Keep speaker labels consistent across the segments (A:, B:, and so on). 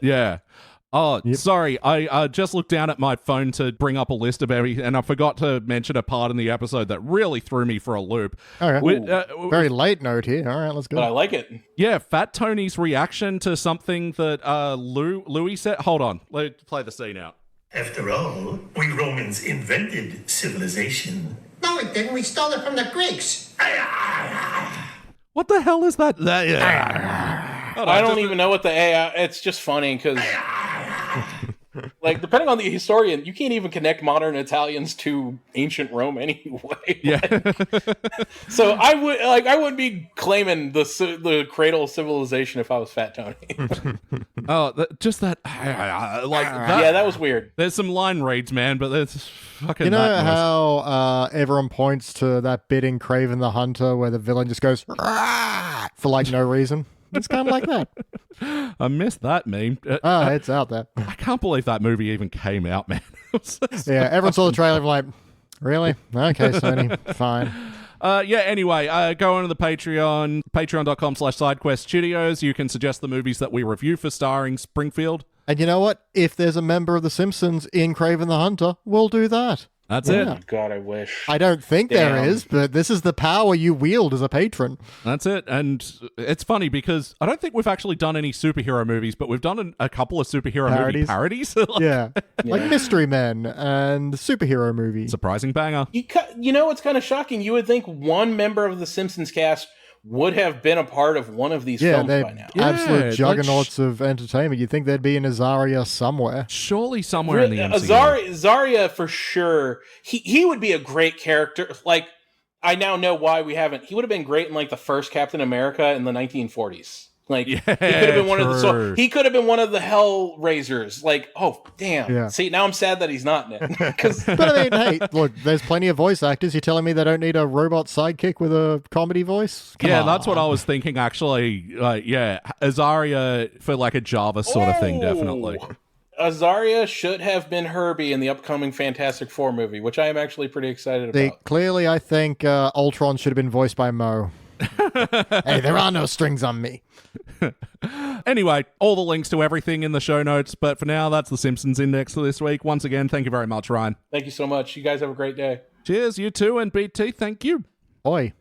A: Yeah. Oh, sorry. I uh, just looked down at my phone to bring up a list of every, and I forgot to mention a part in the episode that really threw me for a loop.
B: All right.
A: We- uh,
B: Very late note here. All right, let's
C: But I
B: go.
C: like it.
A: yeah, Fat Tony's reaction to something that uh, Lou Louis said. Hold on. Let play the scene out.
D: After all, we Romans invented civilization.
E: No, it didn't. We stole it from the Greeks.
A: What the hell is that? That- Hold on,
C: I don't
A: just-
C: even know what the AI. It's just funny because, like, depending on the historian, you can't even connect modern Italians to ancient Rome anyway.
A: Yeah.
C: So I would like I wouldn't be claiming the ci- the cradle of civilization if I was Fat Tony.
A: oh, that, just that. Like that,
C: yeah, that was weird.
A: There's some line reads, man, but there's fucking.
B: You know
A: that noise.
B: how uh, everyone points to that bit in Craven the Hunter where the villain just goes "Rah!" for like no reason? It's kind of like that.
A: I missed that meme. Uh,
B: Oh, it's out there.
A: I can't believe that movie even came out, man. It was so-
B: Yeah, everyone saw the trailer and like, really? Okay, Sony, fine.
A: Uh, yeah, anyway, uh, go on to the Patreon, patreon.com slash sidequest studios. You can suggest the movies that we review for starring Springfield.
B: And you know what? If there's a member of The Simpsons in Craven the Hunter, we'll do that.
A: That's
B: Yeah.
A: it.
C: God, I wish.
B: I don't think there
C: Damn.
B: is, but this is the power you wield as a patron.
A: That's it. And it's funny because I don't think we've actually done any superhero movies, but we've done an, a couple of superhero movie
B: Parodies.
A: parodies.
B: Yeah. Like Mystery Men and the superhero movie.
A: Surprising banger.
C: you, cu- you know what's kind of shocking? You would think one member of the Simpsons cast would have been a part of one of these
B: Yeah,
C: films
B: they're
C: by now.
A: Yeah, like
B: absolute
A: sh-
B: juggernauts of entertainment. You'd think there'd be an Azaria somewhere.
A: Surely somewhere in the
B: uh,
C: Re-
A: MCU.
C: Azar- uh, Zarya for sure. He he would be a great character. Like I now know why we haven't. He would have been great in like the first Captain America in the 1940s. Like
A: Yeah,
C: he could have been one of the
A: true.
C: so he could have been one of the Hellraisers. Like oh damn.
B: Yeah.
C: See now I'm sad that he's not in it because
B: But I mean, hey, look, there's plenty of voice actors. You're telling me they don't need a robot sidekick with a comedy voice? Come
A: yeah,
B: on.
A: that's what I was thinking, actually. Like, yeah, Azaria for like a Java sort of thing, definitely.
C: Azaria should have been Herbie in the upcoming Fantastic Four movie, which I am actually pretty excited about.
B: They, clearly, I think uh, Ultron should have been voiced by Mo. hey, there are no strings on me.
A: Anyway, all the links to everything in the show notes. But for now, that's the Simpsons Index for this week. Once again, thank you very much, Ryan.
C: Thank you so much. You guys have a great day.
A: Cheers, you too, and BT, thank you.
B: Oi.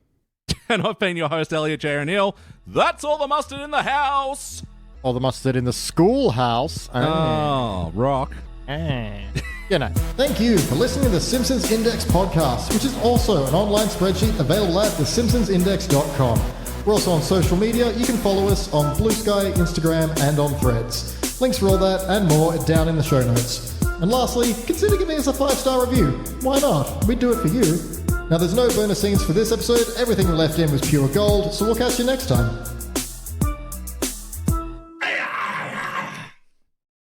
A: And I've been your host, Elliot J. O'Neill. That's all the mustard in the house.
B: Or the mustard in the schoolhouse. Ah.
A: Oh, rock.
B: You know. Thank you for listening to the Simpsons Index podcast, which is also an online spreadsheet available at thesimpsonsindex.com. We're also on social media. You can follow us on Blue Sky, Instagram, and on Threads. Links for all that and more are down in the show notes. And lastly, consider giving us a five-star review. Why not? We'd do it for you. Now, there's no bonus scenes for this episode. Everything we left in was pure gold, so we'll catch you next time.